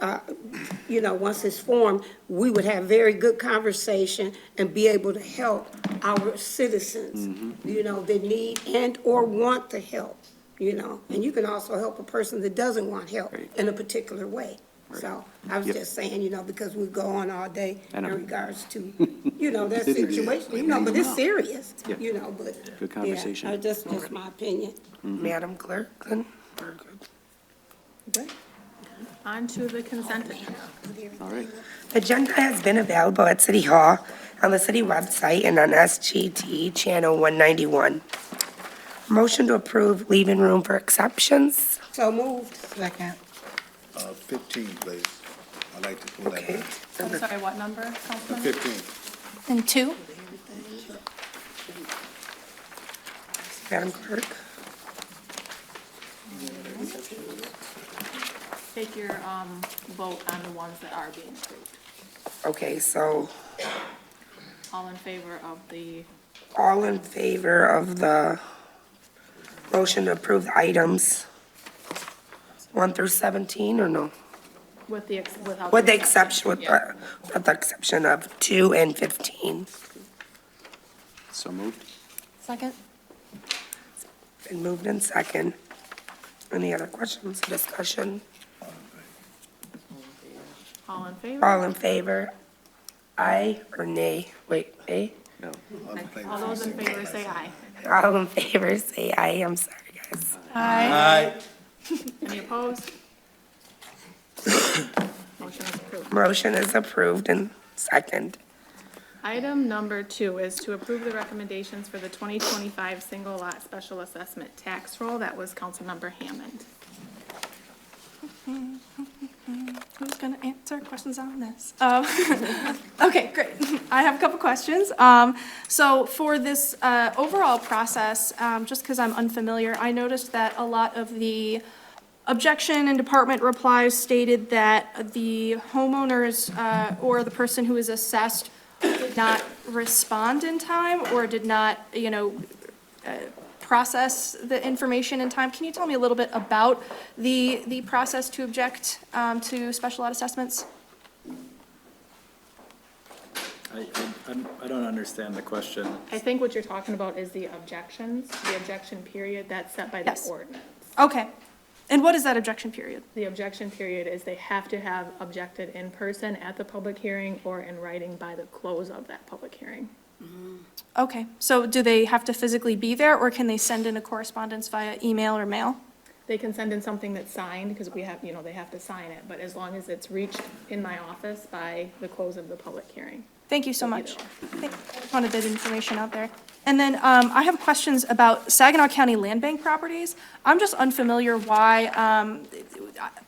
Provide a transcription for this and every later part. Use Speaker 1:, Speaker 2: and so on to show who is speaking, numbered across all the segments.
Speaker 1: uh, you know, once it's formed, we would have very good conversation and be able to help our citizens,
Speaker 2: Mm-hmm.
Speaker 1: you know, that need and/or want the help, you know? And you can also help a person that doesn't want help
Speaker 2: Right.
Speaker 1: in a particular way. So I was
Speaker 2: Yep.
Speaker 1: just saying, you know, because we go on all day
Speaker 2: I
Speaker 1: in
Speaker 2: know.
Speaker 1: regards to, you know, that
Speaker 2: It is.
Speaker 1: situation, you know, but it's serious,
Speaker 2: Yeah.
Speaker 1: you know, but.
Speaker 2: Good
Speaker 1: yeah,
Speaker 2: conversation. Mm-hmm.
Speaker 1: uh, That's just my opinion.
Speaker 3: Madam Clerk?
Speaker 4: Onto the consent agenda.
Speaker 2: All right,
Speaker 3: Agenda has been available at City Hall, on the city website, and on SGT Channel 191. Motion to approve leaving room for exceptions.
Speaker 1: So moved.
Speaker 3: Second.
Speaker 5: Uh, 15, please. I'd like to pull that
Speaker 3: Okay.
Speaker 5: back.
Speaker 4: I'm sorry, what number, Councilman?
Speaker 5: 15.
Speaker 6: And two?
Speaker 3: Madam Clerk?
Speaker 4: Take your um, vote on the ones that are being approved.
Speaker 3: Okay, so
Speaker 4: All in favor of the,
Speaker 3: all in favor of the motion to approve the items 1 through 17, or no?
Speaker 4: with the, ex- without.
Speaker 3: With the exception, with
Speaker 4: Yeah.
Speaker 3: the, with the exception of 2 and 15.
Speaker 2: so moved.
Speaker 6: Second?
Speaker 3: Been moved in second. Any other questions, discussion?
Speaker 4: All in favor?
Speaker 3: All in favor? Aye or nay? Wait, nay?
Speaker 2: No.
Speaker 5: All in favor,
Speaker 4: All those in
Speaker 5: please
Speaker 4: favor
Speaker 5: signify by
Speaker 4: say
Speaker 5: saying
Speaker 4: aye.
Speaker 3: All in favor, say aye. I'm sorry, guys.
Speaker 6: Aye.
Speaker 4: Any opposed? Motion is approved.
Speaker 3: Motion is approved and second.
Speaker 4: Item number two is to approve the recommendations for the 2025 single lot special assessment tax roll. That was Councilmember Hammond.
Speaker 6: Who's going to answer questions on this? Um, Okay, great. I have a couple questions. Um, So for this uh, overall process, um, just because I'm unfamiliar, I noticed that a lot of the objection and department replies stated that the homeowners uh, or the person who is assessed did not respond in time or did not, you know, uh, process the information in time. Can you tell me a little bit about the, the process to object um, to special lot assessments?
Speaker 7: I, I- I'm- I don't understand the question.
Speaker 4: I think what you're talking about is the objections, the objection period that's set by the
Speaker 6: Yes.
Speaker 4: ordinance.
Speaker 6: Okay. And what is that objection period?
Speaker 4: The objection period is they have to have objected in person at the public hearing or in writing by the close of that public hearing.
Speaker 6: Okay, so do they have to physically be there, or can they send in a correspondence via email or mail?
Speaker 4: They can send in something that's signed, because we have, you know, they have to sign it, but as long as it's reached in my office by the close of the public hearing.
Speaker 6: Thank you so
Speaker 4: Either
Speaker 6: much. Thank- I just Wanted that information out there. And then um, I have questions about Saginaw County Land Bank properties. I'm just unfamiliar why, um,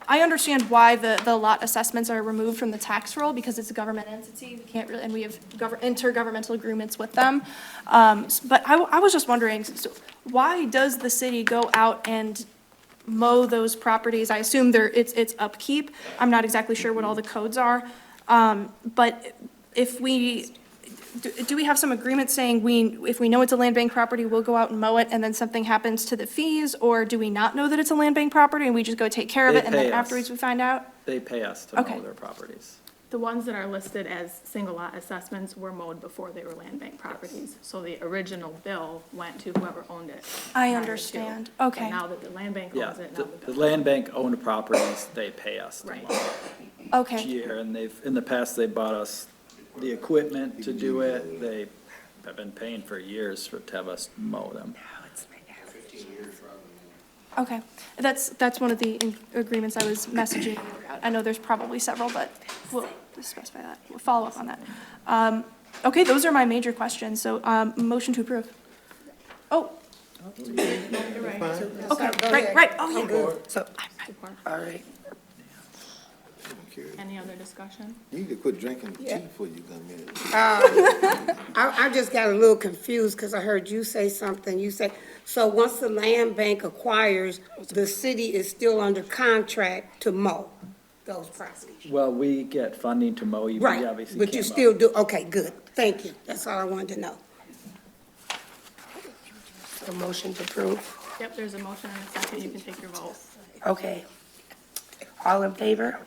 Speaker 6: I understand why the, the lot assessments are removed from the tax roll because it's a government entity. We can't really, and we have gover- intergovernmental agreements with them. Um, s- But I, w- I was just wondering, so why does the city go out and mow those properties? I assume there, it's, it's upkeep. I'm not exactly sure what all the codes are. Um, But if we, do, do we have some agreement saying we, if we know it's a land bank property, we'll go out and mow it and then something happens to the fees? Or do we not know that it's a land bank property and we just go take care of
Speaker 7: They
Speaker 6: it and then
Speaker 7: pay us.
Speaker 6: afterwards we find out?
Speaker 7: They pay us to mow
Speaker 6: Okay.
Speaker 7: their properties.
Speaker 4: The ones that are listed as single lot assessments were mowed before they were land bank properties. So the original bill went to whoever owned it.
Speaker 6: I
Speaker 4: prior to.
Speaker 6: understand.
Speaker 4: But
Speaker 6: Okay.
Speaker 4: Now that the land bank
Speaker 7: Yeah,
Speaker 4: owns it, now
Speaker 7: the,
Speaker 4: the bill.
Speaker 7: the land bank owned properties, they pay us to mow
Speaker 4: Right.
Speaker 6: Okay.
Speaker 7: each year. And they've, in the past, they bought us the equipment to do it. They have been paying for years for, to have us mow them.
Speaker 6: Okay, that's, that's one of the in- agreements I was messaging you about. I know there's probably several, but we'll specify that, we'll follow up on that. Um, Okay, those are my major questions, so um, motion to approve. Oh, okay, right, right, oh, yeah.
Speaker 3: So, all right.
Speaker 5: I don't care.
Speaker 4: Any other discussion?
Speaker 5: You need to quit drinking tea before you come in.
Speaker 1: I, I just got a little confused because I heard you say something. You said, so once the land bank acquires, the city is still under contract to mow those properties.
Speaker 7: Well, we get funding to mow. You
Speaker 1: Right,
Speaker 7: obviously
Speaker 1: but you
Speaker 7: can't mow.
Speaker 1: still do, okay, good. Thank you. That's all I wanted to know.
Speaker 3: So motion to approve.
Speaker 4: Yep, there's a motion and a second. You can take your vote.
Speaker 3: Okay. All in favor?